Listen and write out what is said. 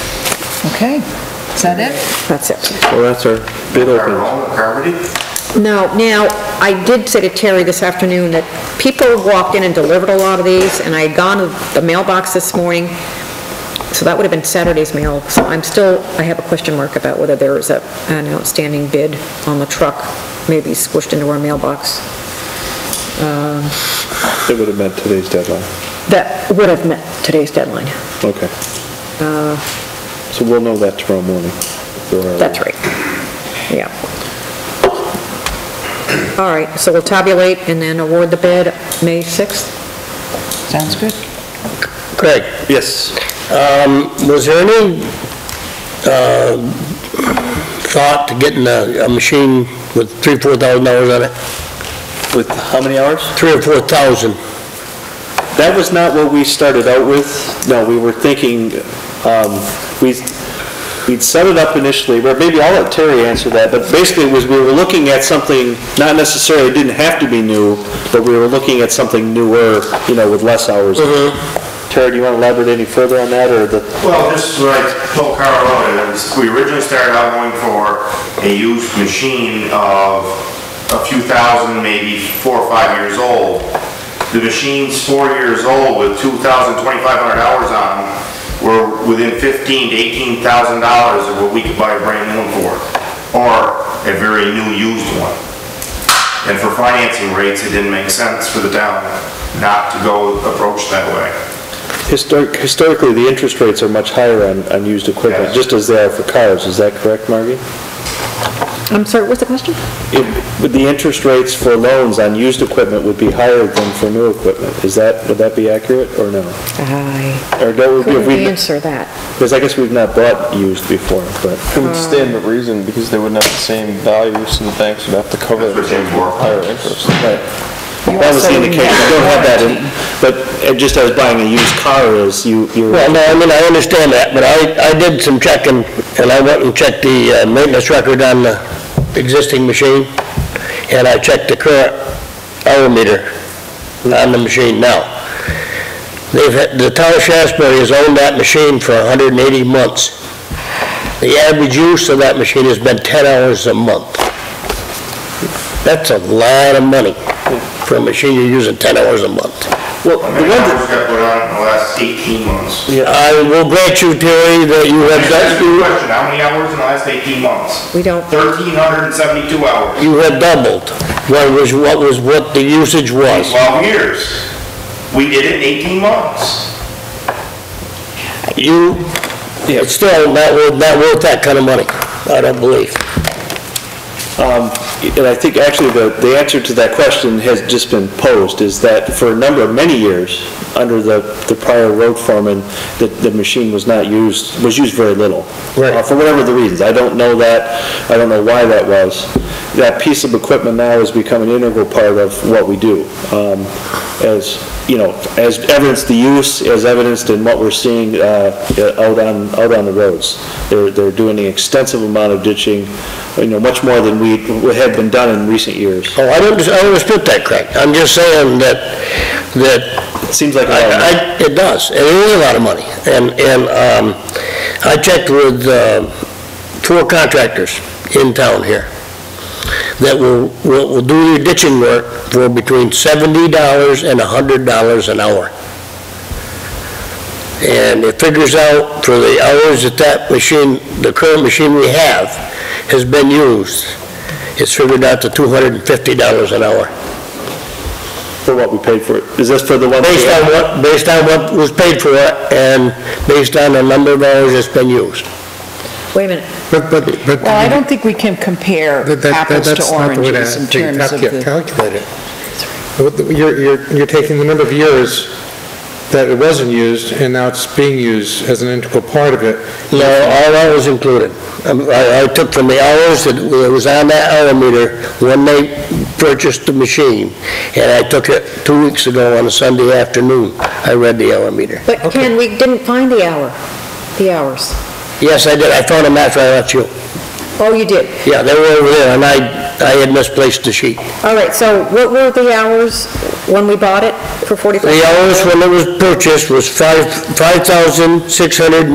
Okay, is that it? That's it. Well, that's our bid opening. Carmody? No, now, I did say to Terry this afternoon that people walked in and delivered a lot of these, and I had gone to the mailbox this morning, so that would have been Saturday's mail. So I'm still, I have a question mark about whether there is a an outstanding bid on the truck, maybe squished into our mailbox, It would have meant today's deadline. that would have met today's deadline. Okay. Uh. So we'll know that tomorrow morning. That's right. Yeah. All right, so we'll tabulate and then award the bid May 6th? Sounds good. Greg, Yes. Um, was there any uh, thought to getting a a machine with three, four thousand dollars on it? With how many hours? Three or four thousand? That was not what we started out with. No, we were thinking, um, we, we'd set it up initially, or maybe I'll let Terry answer that, but basically was we were looking at something, not necessarily, it didn't have to be new, but we were looking at something newer, you know, with less hours. Mm-hmm. Terry, do you want to elaborate any further on that, or the, Well, this is what I told Carl earlier, is we originally started out going for a used machine of a few thousand, maybe four or five years old. The machine's four years old with 2,000, 2,500 hours on them, were within 15 to 18,000 dollars of what we could buy a brand new one for, or a very new used one. And for financing rates, it didn't make sense for the town not to go approach that way. historic, historically, the interest rates are much higher on, on used equipment, Yes. just as they are for cars, is that correct, Margie? I'm sorry, what's the question? It- The interest rates for loans on used equipment would be higher than for new equipment, is that, would that be accurate, or no? I Or don't we, if couldn't we, answer that. because I guess we've not bought used before, but, It would stand to reason because they wouldn't have the same value, so the banks would have to cover it That's what with they were. higher interest. that was the indication, I don't have that in, but uh, just as buying a used car is, you, you're, Well, no, I mean, I understand that, but I, I did some checking, and I went and checked the uh, maintenance record on the existing machine, and I checked the current hour meter on the machine now. They've, had- the town of Shasberry has owned that machine for 180 months. The average use of that machine has been 10 hours a month. That's a lot of money for a machine you're using 10 hours a month. well, How the many one that, hours got put on in the last 18 months? I will grant you, Terry, that you have That's a good done, question, how many hours in the last 18 months? We don't, 1,372 hours, you have doubled what was, what was, what the usage was. 12 years. We did it in 18 months. You, it's still not worth, not worth that kind of money, I don't believe. And I think actually the, the answer to that question has just been posed, is that for a number of many years, under the, the prior road foreman, the, the machine was not used, was used very little. Right. Uh, For whatever the reasons, I don't know that, I don't know why that was. That piece of equipment now has become an integral part of what we do. Um, As, you know, as evidenced the use, as evidenced in what we're seeing uh, out on, out on the roads. They're, they're doing an extensive amount of ditching, you know, much more than we, what had been done in recent years. Oh, I don't, dis- I don't dispute that, Craig, I'm just saying that, that It seems like a lot of money. I, I, it does, and it is a lot of money. And, and, um, I checked with, uh, four contractors in town here that will, will, will do your ditching work for between seventy dollars and a hundred dollars an hour. And it figures out for the hours that that machine, the current machine we have, has been used, it's figured out to two hundred and fifty dollars an hour. for what we paid for it. Is this for the one? Based on what, based on what was paid for and based on the number of hours it's been used. wait a minute. But, but, but. Well, I don't think we can compare that- that- that- apples that's to not the way oranges in to terms of calcu- the... Calculate it. What the- You're, you're, you're taking the number of years that it wasn't used, and now it's being used as an integral part of it. No, all hours included. Um, I, I took from the hours that was on that hour meter when they purchased the machine, and I took it two weeks ago on a Sunday afternoon. I read the hour meter. But Ken, we didn't find the hour, the hours. Yes, I did, I found them after I left you. Oh, you did. Yeah, they were over there, and I, I had misplaced the sheet. All right, so what were the hours when we bought it for 45? The hours when it was purchased was five, five thousand six hundred